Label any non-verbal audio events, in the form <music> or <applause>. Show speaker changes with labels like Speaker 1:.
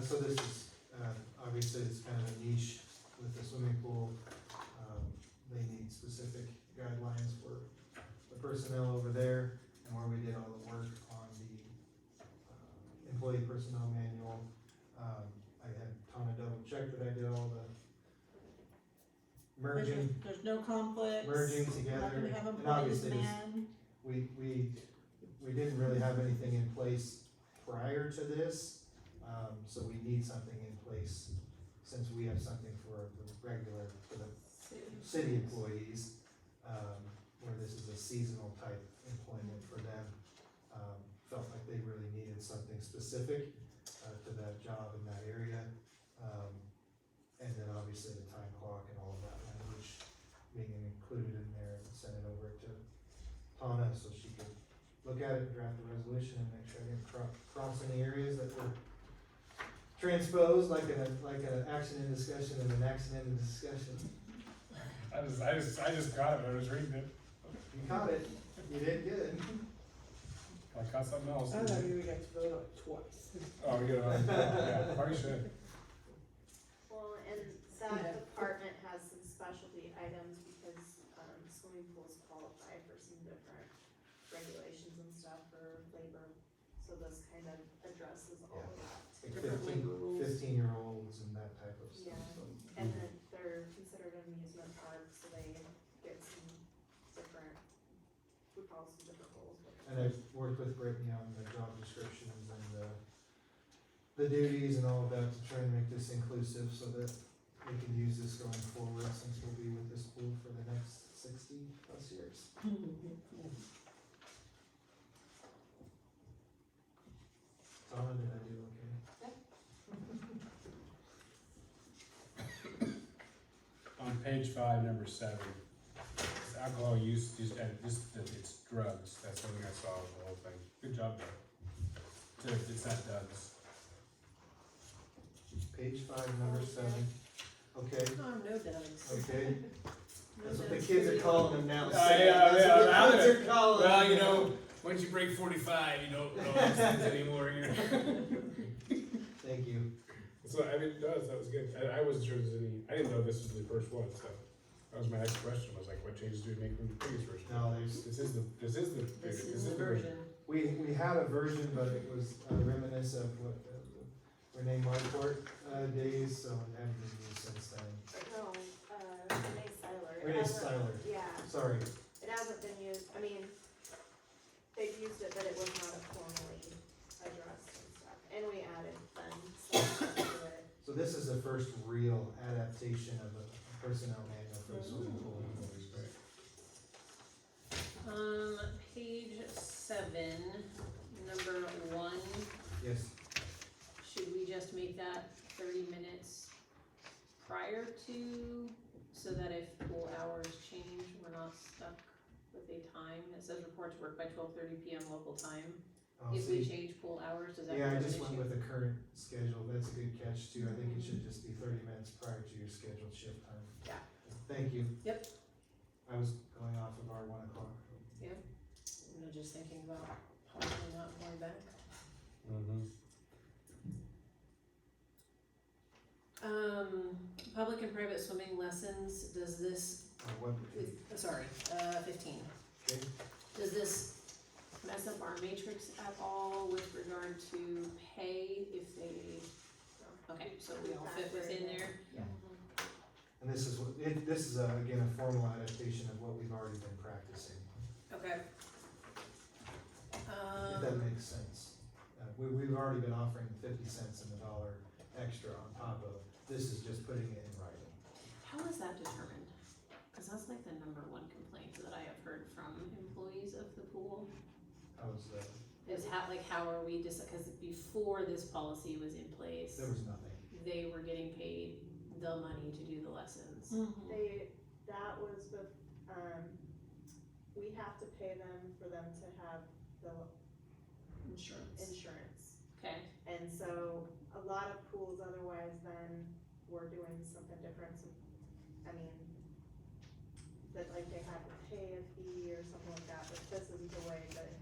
Speaker 1: so this is, uh, obviously it's kind of a niche with the swimming pool. Um, They need specific guidelines for the personnel over there and where we did all the work on the uh, employee personnel manual. Um, I had Tana double check that I did all the
Speaker 2: There's,
Speaker 1: merging,
Speaker 2: there's no conflicts.
Speaker 1: merging
Speaker 2: Not
Speaker 1: together.
Speaker 2: gonna have
Speaker 1: And
Speaker 2: employees
Speaker 1: obviously, it's-
Speaker 2: man.
Speaker 1: we, we, we didn't really have anything in place prior to this. Um, so we need something in place since we have something for the regular, for the city employees, um, where this is a seasonal type employment for them. Um, felt like they really needed something specific, uh, to that job in that area. Um, and then obviously the time clock and all of that language being included in there and sent it over to Tana so she could look at it, draft the resolution and make sure I didn't cro- cross any areas that were transposed like a, like an action in discussion and an accident in discussion.
Speaker 3: I just, I just, I just got it, I was reading it,
Speaker 1: You caught it. You did good.
Speaker 3: I caught something else.
Speaker 4: I thought you would have to vote on it twice.
Speaker 3: Oh, yeah, yeah, probably should.
Speaker 5: Well, and
Speaker 4: Yeah.
Speaker 5: that department has some specialty items because, um, swimming pools qualify for some different regulations and stuff for labor. So this kind of addresses all of that.
Speaker 1: Like
Speaker 5: Different
Speaker 1: fifteen,
Speaker 5: labor rules.
Speaker 1: fifteen-year-olds and that type of stuff,
Speaker 5: Yeah.
Speaker 1: so.
Speaker 5: And then they're considered amusement parks, so they get some different, we call some different rules.
Speaker 1: And I've worked with Brittany on the job descriptions and the, the duties and all of that to try and make this inclusive so that we can use this going forward since we'll be with this pool for the next sixty plus years. Donna, did I do okay?
Speaker 3: On page five, number seven, it's alcohol use, just, and just, that it's drugs, that's something I saw, with the whole thing, good job, though. It's, it's not drugs.
Speaker 1: Page five, number seven. Okay,
Speaker 4: Oh, no doubts.
Speaker 1: okay. That's what the kids are calling them now.
Speaker 3: Oh,
Speaker 1: Sam.
Speaker 3: yeah,
Speaker 1: That's
Speaker 3: yeah,
Speaker 1: what the
Speaker 3: I'm
Speaker 1: kids
Speaker 3: gonna-
Speaker 1: are calling
Speaker 3: Well,
Speaker 1: them
Speaker 3: you
Speaker 1: now.
Speaker 3: know, once you break forty-five, you don't <laughs> know these things anymore, you know.
Speaker 1: Thank you.
Speaker 3: So, I mean, no, that was good, I, I wasn't sure there's any, I didn't know this was the first one, so, that was my next question, was like, what changes do we make from the previous version?
Speaker 1: No, there's,
Speaker 3: This is the, this is the,
Speaker 4: This is the version.
Speaker 1: We, we had a version, but it was uh, reminiscent of what uh, Renee Marquardt uh, days, so it hadn't been used since then.
Speaker 5: No, uh, Renee Seiler. It
Speaker 1: Renee
Speaker 5: hasn't-
Speaker 1: Styler,
Speaker 5: Yeah.
Speaker 1: sorry,
Speaker 5: It hasn't been used, I mean, they've used it, but it was not formally addressed and stuff, and we added fun stuff to it.
Speaker 1: so this is the first real adaptation of a personnel manual for the swimming pool. employees, right?
Speaker 2: Um, page seven, number one,
Speaker 1: Yes,
Speaker 2: should we just make that thirty minutes prior to, so that if pool hours change, we're not stuck with a time? It says report to work by twelve thirty PM local time.
Speaker 1: I'll
Speaker 2: If we
Speaker 1: see.
Speaker 2: change pool hours, does that
Speaker 1: Yeah, I
Speaker 2: become an
Speaker 1: just went
Speaker 2: issue?
Speaker 1: with the current schedule, that's a good catch too, I think it should just be thirty minutes prior to your scheduled shift time.
Speaker 2: Yeah.
Speaker 1: Thank you.
Speaker 2: Yep.
Speaker 1: I was going off of our one o'clock.
Speaker 2: You know, just thinking about possibly not going back.
Speaker 3: Mm-hmm.
Speaker 2: Um, public and private swimming lessons, does this,
Speaker 1: Uh, what-
Speaker 2: uh, sorry, uh, fifteen.
Speaker 1: Okay.
Speaker 2: Does this mess up our matrix at all with regard to pay if they, okay, so we all fit within there?
Speaker 1: And this is, what it, this is, uh, again, a formal adaptation of what we've already been practicing,
Speaker 2: Okay.
Speaker 1: if that
Speaker 2: Um,
Speaker 1: makes sense. Uh, we, we've already been offering fifty cents and a dollar extra on top of, this is just putting it in writing.
Speaker 2: how is that determined? Cause that's like the number one complaint that I have heard from employees of the pool.
Speaker 1: I was, uh,
Speaker 2: Is how, like, how are we, just, cause before this policy was in place.
Speaker 1: there was nothing.
Speaker 2: they were getting paid the money to do the lessons.
Speaker 5: They, that was with, um, we have to pay them for them to have the
Speaker 2: Insurance.
Speaker 5: insurance.
Speaker 2: Okay,
Speaker 5: And so a lot of pools otherwise then were doing something different, so, I mean, that uh, like they had to pay a fee or something like that, but this is the way that